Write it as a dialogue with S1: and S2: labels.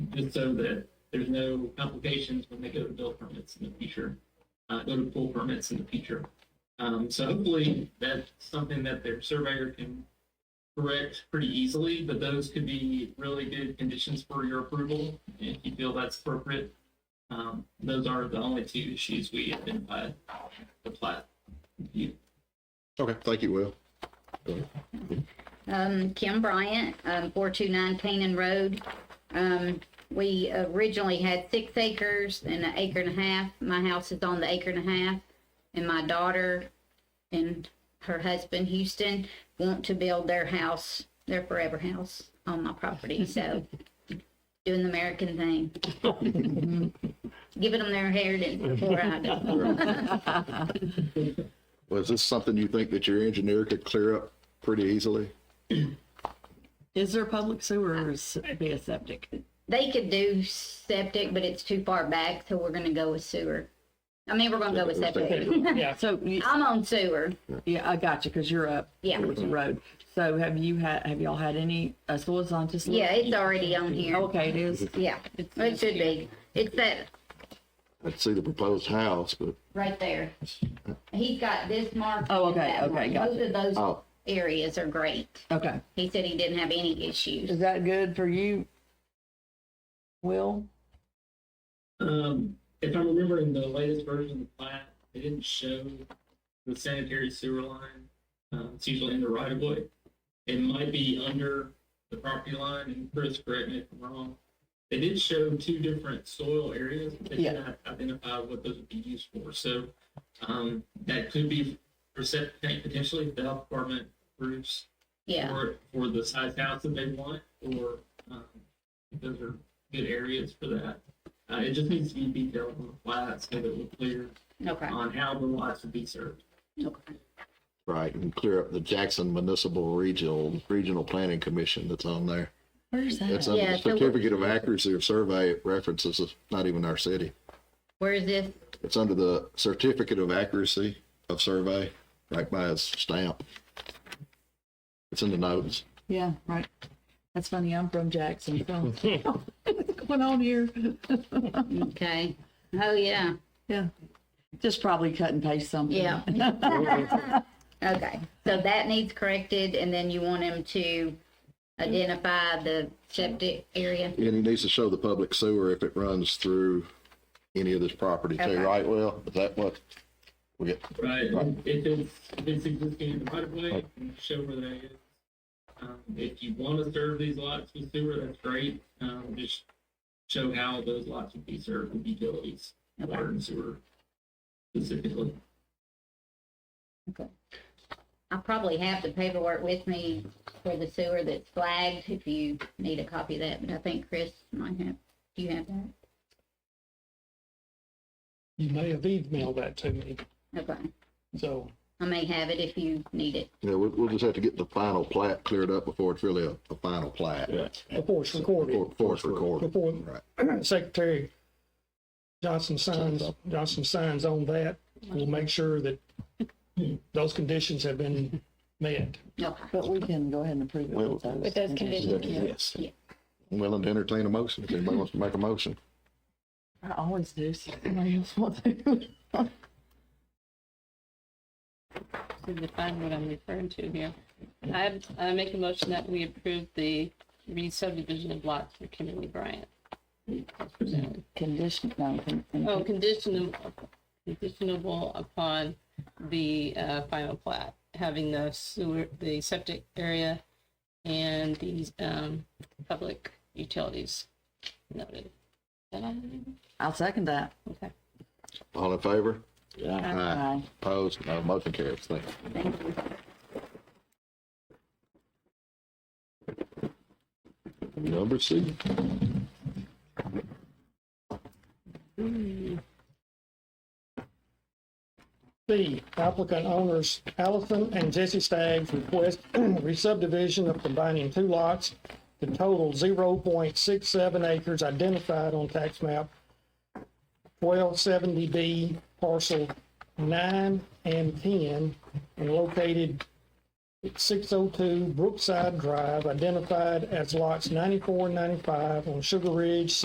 S1: just so that there's no complications when they go to build permits in the future, uh, go to pull permits in the future. Um, so hopefully that's something that their surveyor can correct pretty easily, but those could be really good conditions for your approval if you feel that's appropriate. Um, those are the only two issues we identified, the plat. view.
S2: Okay, thank you, Will.
S3: Um, Kim Bryant, um, four two nine Canaan Road. Um, we originally had six acres and an acre and a half. My house is on the acre and a half. And my daughter and her husband Houston want to build their house, their forever house on my property, so. Doing the American thing. Giving them their inheritance before I do.
S2: Well, is this something you think that your engineer could clear up pretty easily?
S4: Is there public sewer or is it be a septic?
S3: They could do septic, but it's too far back, so we're gonna go with sewer. I mean, we're gonna go with septic.
S1: Yeah,
S4: So, you-
S3: I'm on sewer.
S4: yeah, I got you, because you're up.
S3: Yeah.
S4: towards the road. So have you had, have y'all had any, uh, so it's on just?
S3: Yeah, it's already on here.
S4: Okay, it is.
S3: Yeah, it should be. It's that
S2: I'd see the proposed house, but,
S3: right there. He's got this mark.
S4: Oh, okay,
S3: and that mark.
S4: okay, gotcha.
S3: Both of those
S2: oh,
S3: areas are great.
S4: Okay.
S3: He said he didn't have any issues.
S4: Is that good for you? Will?
S1: Um, if I remember in the latest version of the plat, they didn't show the sanitary sewer line. Um, it's usually in the right of way. It might be under the property line, and Chris, correct me if I'm wrong. They did show two different soil areas, but they did
S4: Yeah.
S1: not identify what those would be used for. So, um, that could be for septic tank potentially, if the health department approves
S3: Yeah,
S1: for, for the size house that they want, or, um, those are good areas for that. Uh, it just needs to be detailed on the plat so that we're clear
S3: okay,
S1: on how the lots would be served.
S3: okay.
S2: right, and clear up the Jackson Municipal Regional, Regional Planning Commission that's on there.
S4: Where's
S2: It's
S4: that?
S2: on
S3: Uh, Yeah,
S2: the
S3: so what-
S2: certificate of accuracy of survey It references, it's not even our city.
S3: Where is this?
S2: It's under the certificate of accuracy of survey, right by his stamp. It's in the notes.
S4: Yeah, right. That's funny, I'm from Jackson, so. What's going on here?
S3: Okay. Oh, yeah,
S4: Yeah. Just probably cut and paste something.
S3: yeah. Okay, so that needs corrected and then you want him to identify the septic area?
S2: And he needs to show the public sewer if it runs through any of this property
S3: Okay.
S2: too, right, Well, Is that what? We get,
S1: Right, and if it's, if it's existing in the right of way, and show where that is. Um, if you want to serve these lots with sewer, that's great, um, just show how those lots would be served with utilities, water and sewer specifically.
S3: I probably have the paperwork with me for the sewer that's flagged, if you need a copy of that, but I think Chris might have, do you have that?
S5: You may have emailed that to me,
S3: Okay,
S5: so
S3: I may have it if you need it.
S2: you know, we'll, we'll just have to get the final plat cleared up before it's really a, a final plat.
S5: before it's
S2: Before,
S5: recorded,
S2: before it's recorded.
S5: before
S2: Right.
S5: Secretary Johnson signs, Johnson signs on that, we'll make sure that those conditions have been met.
S3: Okay,
S4: But we can go ahead and approve it with those.
S6: With those conditions, yeah.
S2: Yes. I'm Willing to entertain a motion, if anybody wants to make a motion.
S4: I always do, so somebody else wants to.
S6: to define what I'm referring to here. I, I make a motion that we approve the re-subdivision of lots for Kimberly Bryant.
S4: Condition, no, con-
S6: Oh, conditional, conditionable upon the, uh, final plat, having the sewer, the septic area and these, um, public utilities noted. Is that all?
S4: I'll second that.
S6: Okay.
S2: All in favor? Aye.
S4: Aye.
S2: Opposed? No, motion carries. Thank you.
S3: thank you.
S2: Number C.
S5: B, applicant owners Allison and Jesse Staggs request re-subdivision of combining two lots to total zero point six seven acres identified on tax map twelve seventy B parcel nine and ten and located at six oh two Brookside Drive identified as lots 94 and 95 on Sugar Ridge